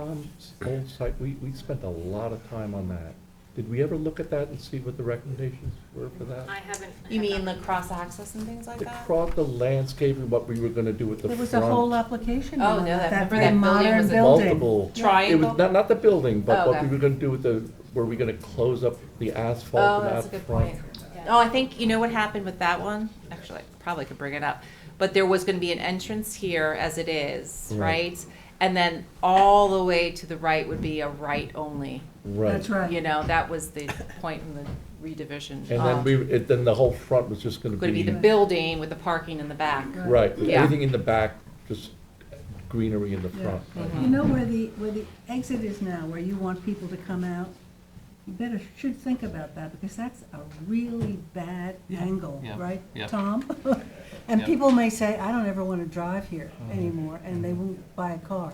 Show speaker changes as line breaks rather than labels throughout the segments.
Tom's old site, we, we spent a lot of time on that. Did we ever look at that and see what the recommendations were for that?
I haven't. I
You mean the
haven't.
cross-access and things like
The
that?
crop, the landscaping, what we were gonna do with the
There
front.
was a whole application
Oh,
on
no, that-
that, that
remember that building
very modern
was a-
Multiple. It was,
Triangle?
not, not the building, but
Oh,
what we
okay.
were gonna do with the, were we gonna close up the asphalt
Oh,
and out
that's a
front?
good point.
Yeah.
Oh, I think, you know what happened with that one? Actually, I probably could bring it up. But there was gonna be an entrance here as it is,
Right.
right? And then all the way to the right would be a right only.
Right.
That's right.
You know, that was the point in the redivision.
And then
Um,
we, it, then the whole front was just gonna be.
Gonna be the building with the parking in the back.
Right,
Yeah.
everything in the back, just greenery in the
Yeah.
front.
You
Mm-hmm.
know where the, where the exit is now, where you want people to come out? You better, should think about that, because that's a really bad angle,
yeah,
right,
yeah.
Tom? And
Yeah.
people may say, I don't ever want to drive here anymore, and they won't buy a car.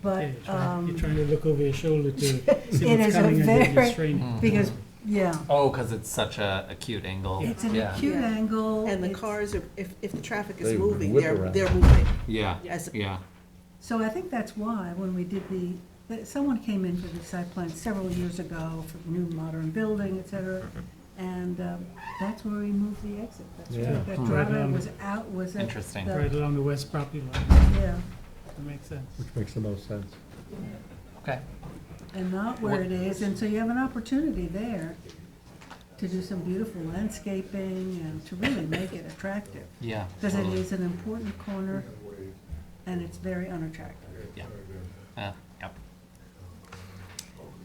But,
Yeah, you're trying-
um,
You're trying to look over your shoulder to see
It
what's
is a
coming and
very-
you're straining.
because, yeah,
Oh, because it's such a acute angle.
it's an
yeah.
acute
Yeah.
angle.
And the
it's-
cars are, if, if the traffic
They
is moving,
whip
they're,
around.
they're moving.
Yeah.
Yes.
Yeah.
So I think that's why, when we did the, that someone came in for the site plan several years ago for new modern building, et cetera, and um, that's where we moved the exit. That's
Yeah.
right. That
Hmm.
driveway
Right.
was out, was at.
Interesting.
the-
Right along the west property line,
Yeah,
that makes sense.
Which makes the most sense.
Okay.
and not where it is, and so you have an opportunity there to do some beautiful landscaping and to really make it attractive.
Yeah.
Because it
totally.
is an important corner, and it's very unattractive.
Yeah. Yeah. Yep.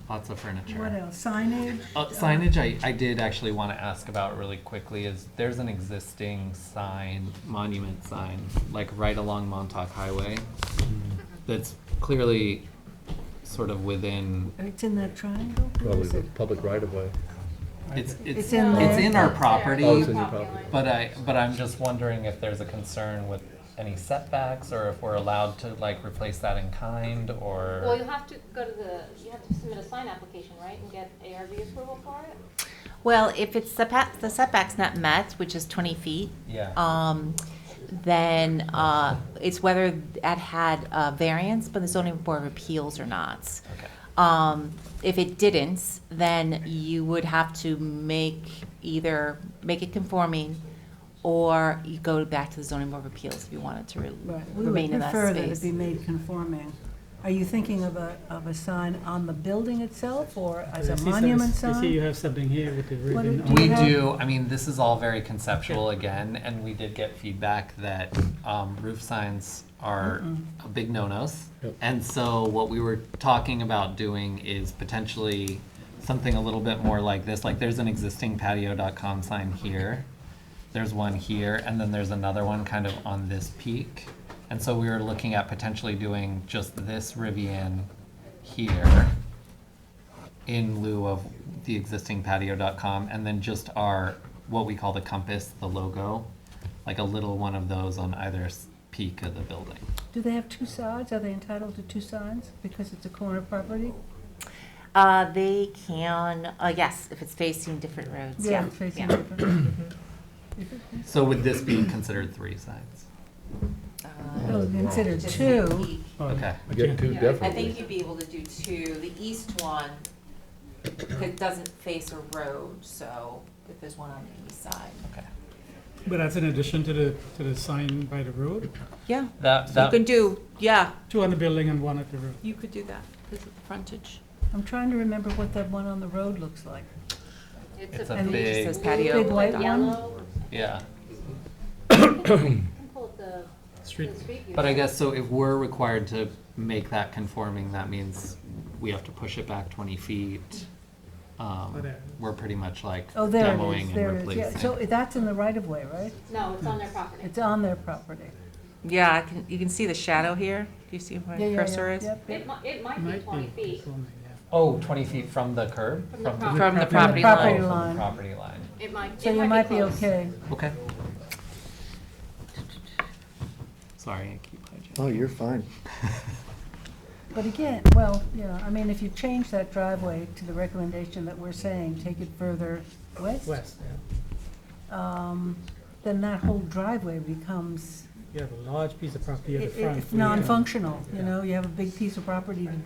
Lots of furniture.
What else? Signage?
Uh, signage I, I did actually want to ask about really quickly is there's an existing sign, monument sign, like right along Montauk Highway that's clearly sort of within,
It's in that triangle? What
Probably
is
the
it?
public right of way.
it's,
It's
it's,
in
No,
there.
it's in our
not there.
property.
Oh, it's in your property.
but I, but I'm just wondering if there's a concern with any setbacks or if we're allowed to like replace that in kind or.
Well, you'll have to go to the, you have to submit a sign application, right, and get ARB approval for it?
Well, if it's the pa- the setback's not met, which is twenty feet,
Yeah.
um, then, uh, it's whether that had a variance, but the zoning board of appeals or not.
Okay.
Um, if it didn't, then you would have to make, either make it conforming, or you go back to the zoning board of appeals if you wanted to re-
Right, we would
remain in that
prefer that it be
space.
made conforming. Are you thinking of a, of a sign on the building itself, or as
I
a
see some-
monument
I see you
sign?
have something here with the
What
ribbon.
do-
on
We
it.
have-
do, I mean, this is all very conceptual again, and we did get feedback that um, roof signs are a big no-nos.
Yep.
And so what we were talking about doing is potentially something a little bit more like this, like there's an existing patio.com sign here. There's one here, and then there's another one kind of on this peak. And so we were looking at potentially doing just this Rivian here in lieu of the existing patio.com and then just our what we call the compass the logo like a little one of those on either s- peak of the building
Do they have two sides? Are they entitled to two signs because it's a corner property?
Uh, they can, uh, yes, if it's facing different roads, yeah.
Facing
yeah.
different.
so would this be considered three sigds
Uh,
Oh, consider
just the
two.
peak.
Oh,
Okay.
I
Get
can't-
two
I
definitely.
think you'd be able to do two, the east one, that doesn't face a road, so if there's one on the east side.
But that's in addition to the, to the sign by the road,
Yeah,
that
you
that
can do, yeah,
two on the building and one at the road.
you could do that, because of the frontage.
I'm trying to remember what that one on the road looks like.
It's a
blue-
big- It
says patio.
Big white one?
Yellow.
yeah
You can pull up the-
Street,
the street view.
but i guess so if we're required to make that conforming that means we have to push it back 20 feet
Oh,
um,
there.
we're pretty much like
Oh, there it
demoing
is,
and
there it is.
replacing
Yeah, so that's in the right of way, right?
No, it's on their property.
It's on their property.
Yeah, I can, you can see the shadow here, do you see where
Yeah, yeah,
my
yeah,
cursor is?
yep, yep.
It mi- it might be
might
twenty
be
feet,
conforming, yeah.
oh 20 feet from the curb
From the property.
From the
From
property
the
oh,
line.
property
from
line.
the property line
it might,
So
it
you might be
close.
okay.
Okay. Sorry, I keep hijacking.
Oh, you're fine.
But again, well, yeah, I mean, if you change that driveway to the recommendation that we're saying, take it further west,
West, yeah.
um, then that whole driveway becomes,
You have a large piece of property at the
it-
front.
it's
where you have-
non-functional, you know, you have a big piece of property to